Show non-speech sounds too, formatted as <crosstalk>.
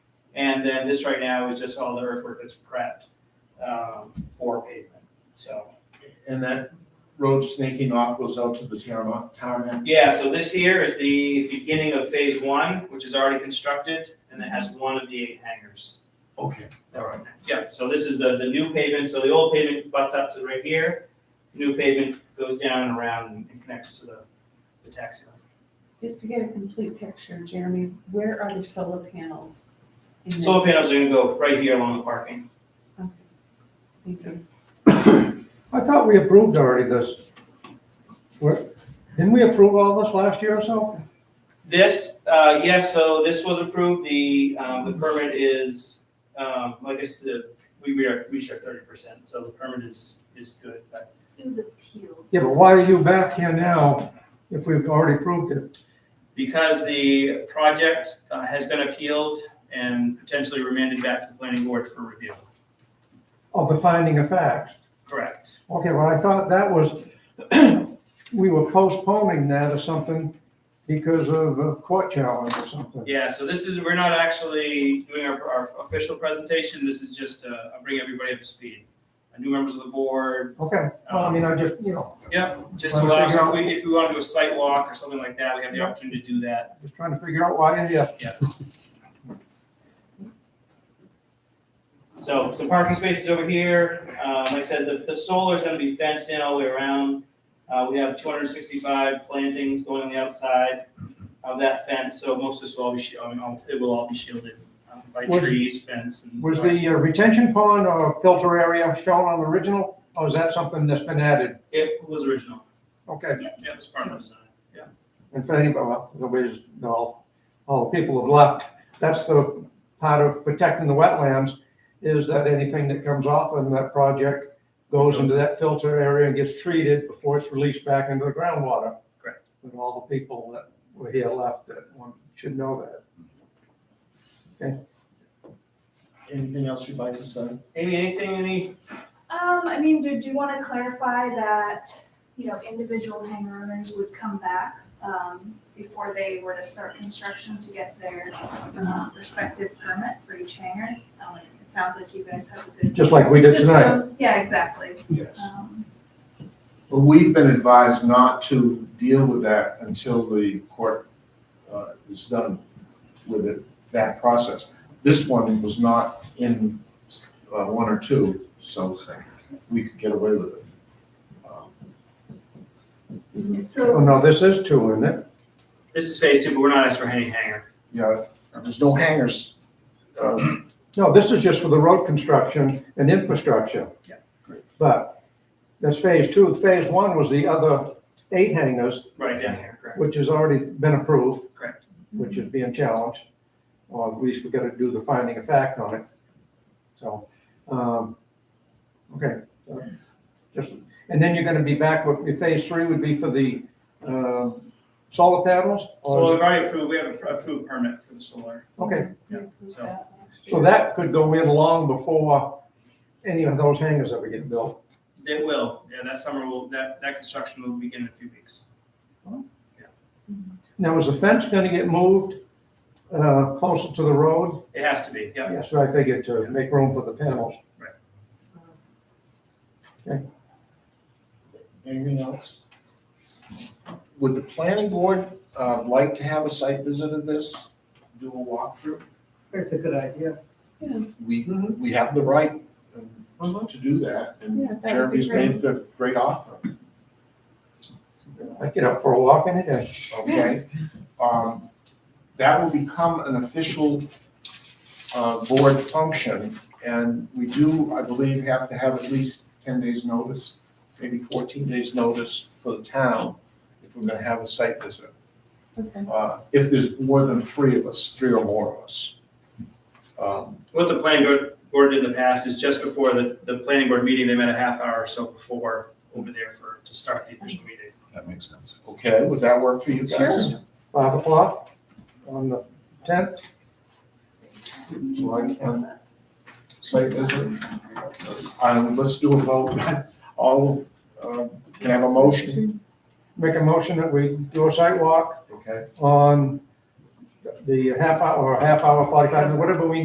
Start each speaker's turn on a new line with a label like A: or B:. A: And then this right now is just all the earthwork that's prepped um, for pavement. So,
B: And that road snaking off goes out to the tarmac, tarmac.
A: yeah, so this here is the beginning of phase one, which is already constructed, and it has one of the eight hangars.
B: Okay, all right.
A: Yeah, so this is the, the new pavement, so the old pavement butts up to right here, new pavement goes down and around and- and connects to the, the taxi line.
C: Just to get a complete picture, Jeremy, where are the solar panels? in this?
A: Solar panels are gonna go right here along the parking.
C: Okay. Thank you.
D: I thought we approved already this. Where- Didn't we approve all this last year or so?
A: This, uh, yes, so this was approved, the, um, the permit is, um, I guess the, we, we are, we share thirty percent, so the permit is, is good, but
E: It was appealed.
D: Yeah, but why are you back here now if we've already approved it?
A: because the project uh, has been appealed and potentially remanded back to the planning board for review,
D: Of the finding of facts?
A: correct?
D: Okay, well, I thought that was, <clears throat> we were postponing that or something because of a court challenge or something.
A: Yeah, so this is, we're not actually doing our, our official presentation, this is just, uh, I'll bring everybody up to speed. Uh, New members of the board, um,
D: Okay, well, I mean, I just, you know,
A: just to allow, us- if we, if we wanna do a site walk or something like that, we have the opportunity to do that.
D: just trying to figure out why you're here.
A: So, so parking spaces over here, um, like I said, the, the solar's gonna be fenced in all the way around. Uh, we have two hundred and sixty-five plantings going on the outside of that fence, so most of this will all be, shi- I mean, all- it will all be shielded um, by
D: Was-
A: trees, fence and.
D: Was the uh, retention pond or filter area shown on the original, or is that something that's been added?
A: It was original,
D: Okay,
A: yeah, it was part of the design, yeah.
D: and for anybody, well, nobody's, all, all the people have left. That's the part of protecting the wetlands, is that anything that comes off in that project goes into that filter area and gets treated before it's released back into the groundwater.
A: Correct.
D: But all the people that were here left, that one should know that.
B: Anything else you'd like to say?
A: Amy, anything, any,
E: Um, I mean, did you want to clarify that, you know, individual hangar owners would come back, um, before they were to start construction to get their, um, respective permit for each hangar? Um, it sounds like you guys have a good.
D: Just like we did tonight.
E: system. Yeah, exactly.
B: Yes.
E: Um,
B: Well, we've been advised not to deal with that until the court uh, is done with it, that process. This one was not in uh, one or two, so we could get away with it. Um,
D: Oh,
E: So,
D: no, this is two, isn't it?
A: this is phase two, but we're not asking for any hangar.
B: Yeah, there's no hangers. Uh,
D: No, this is just for the road construction and infrastructure.
A: Yeah,
B: great.
D: But that's phase two. Phase one was the other eight hangers,
A: Right down here, correct?
D: which has already been approved.
A: Correct.
D: Which is being challenged, or at least we gotta do the finding of fact on it. So, um, okay. Just, and then you're gonna be back with, your phase three would be for the, um, solar panels? or is
A: So
D: it-
A: we've already approved, we have an approved permit for the solar.
D: Okay,
A: Yeah,
C: Approve
A: so-
C: that next
D: so
C: year.
D: that could go in long before any of those hangers ever get built.
A: It will, yeah, that summer will, that, that construction will begin in a few weeks.
D: Now, is the fence gonna get moved uh, closer to the road?
A: It has to be, yeah.
D: Yes, I figured to make room for the panels.
B: Anything else? Would the planning board uh, like to have a site visit of this, do a walkthrough?
F: It's a good idea.
B: we, we have the right um, to do that,
C: Yeah,
B: and
C: that would be
B: Jeremy's made the great offer,
D: I get up for a walk any day.
B: okay? Um, That will become an official uh, board function, and we do, I believe, have to have at least ten days' notice, maybe fourteen days' notice for the town if we're gonna have a site visit,
C: Okay.
B: uh, if there's more than three of us, three or more of us. Um,
A: What the planning board, board did in the past is just before the, the planning board meeting, they met a half hour or so before over there for, to start the official meeting.
G: That makes sense.
B: Okay, would that work for you guys?
C: Sure.
D: Five o'clock on the tenth,
B: July tenth, site visit. Um, let's do a vote, <laughs> all, um, can I have a motion?
D: make a motion that we do a site walk
B: Okay.
D: on the half hour, or half hour, forty-five, minutes, whatever we